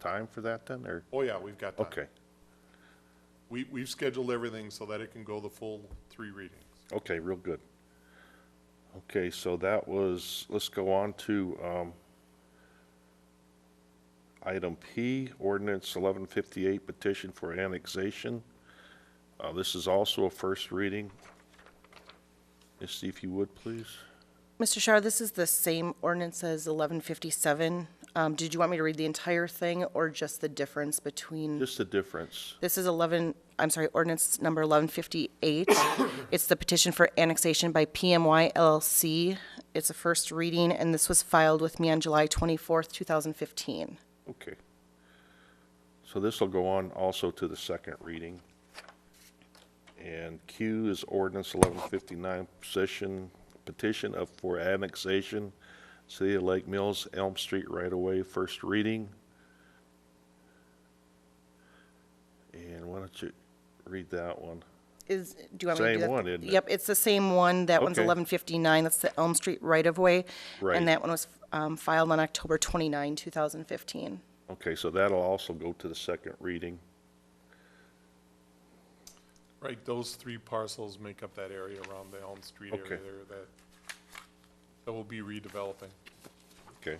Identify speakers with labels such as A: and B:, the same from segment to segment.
A: time for that then, or,
B: Oh, yeah, we've got time.
A: okay,
B: We, we've scheduled everything so that it can go the full three readings.
A: okay, real good. Okay, so that was, let's go on to, um, item P, ordinance eleven fifty-eight, petition for annexation. Uh, this is also a first reading. Misty, if you would, please.
C: Mr. Shaw, this is the same ordinance as 1157. Um, Did you want me to read the entire thing or just the difference between?
A: Just the difference.
C: This is 11, I'm sorry, ordinance number 1158. It's the petition for annexation by PMY LLC. It's a first reading, and this was filed with me on July 24th, 2015.
A: Okay. So this will go on also to the second reading. And Q is ordinance eleven fifty-nine, petition, petition of, for annexation, City of Lake Mills, Elm Street right away. first reading. And why don't you read that one?
C: Is, do you want me to do
A: Same
C: that?
A: one, isn't it?
C: Yep, it's the same one. That one's
A: Okay.
C: 1159. That's the Elm Street right-of-way.
A: Right.
C: And that one was um, filed on October 29, 2015.
A: Okay, so that'll also go to the second reading.
B: Right, those three parcels make up that area around the Elm Street area
A: Okay.
B: there that, that will be redeveloping.
A: Okay.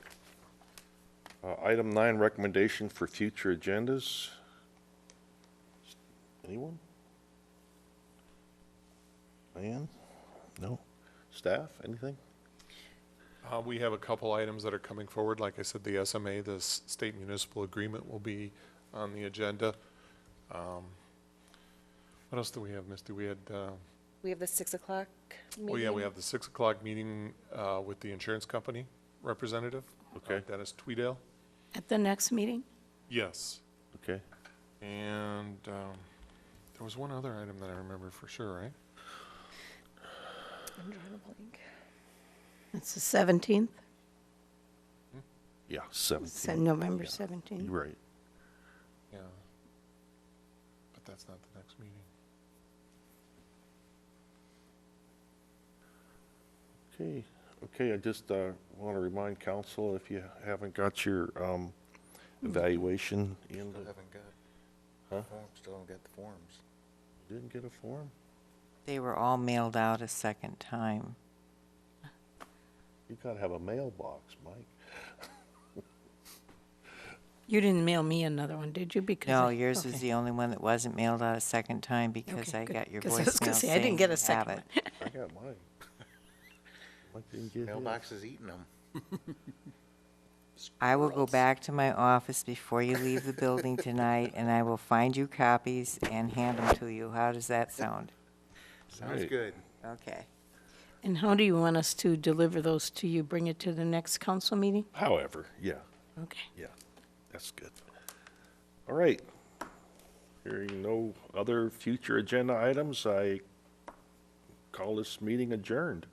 A: Uh, Item nine, recommendation for future agendas. Anyone? Ann? No? Staff, anything?
B: Uh, we have a couple items that are coming forward. Like I said, the SMA, the s- state municipal agreement will be on the agenda. Um, What else do we have, Misty? We had, uh,
C: We have the 6 o'clock meeting.
B: oh yeah, we have the six o'clock meeting, uh, with the insurance company representative. uh,
A: Okay.
B: Dennis Tweedale.
D: At the next meeting?
B: Yes.
A: Okay.
B: And, um, there was one other item that I remember for sure, right?
D: It's the 17th,
A: Yeah,
D: It's
A: 17.
D: on November
A: You're
D: 17th.
A: right.
B: Yeah. But that's not the next meeting.
A: Okay, okay, I just want to remind council, if you haven't got your um, evaluation in,
E: Still
A: the-
E: haven't got,
A: Huh?
E: form- still haven't got the forms.
A: didn't get a form?
F: They were all mailed out a second time.
A: You got to have a mailbox, Mike.
D: You didn't mail me another one, did you? Because
F: No,
D: I-
F: yours is
D: okay.
F: the only one that wasn't mailed out a second time because
D: Okay,
F: I
D: good.
F: got your
D: 'Cause I was gonna
F: voicemail
D: say, I didn't
F: saying
D: get a
F: you have
D: second
F: it.
D: one.
A: I got mine. Mike didn't get his.
E: Mailbox is eating them.
F: I will go back to my office before you leave the building tonight and I will find you copies and hand them to you. How does that sound?
E: Sounds
A: Right.
E: good.
F: Okay.
D: And how do you want us to deliver those to you? Bring it to the next council meeting?
A: However, yeah,
D: Okay.
A: yeah, that's good. All right. Hearing no other future agenda items, I call this meeting adjourned.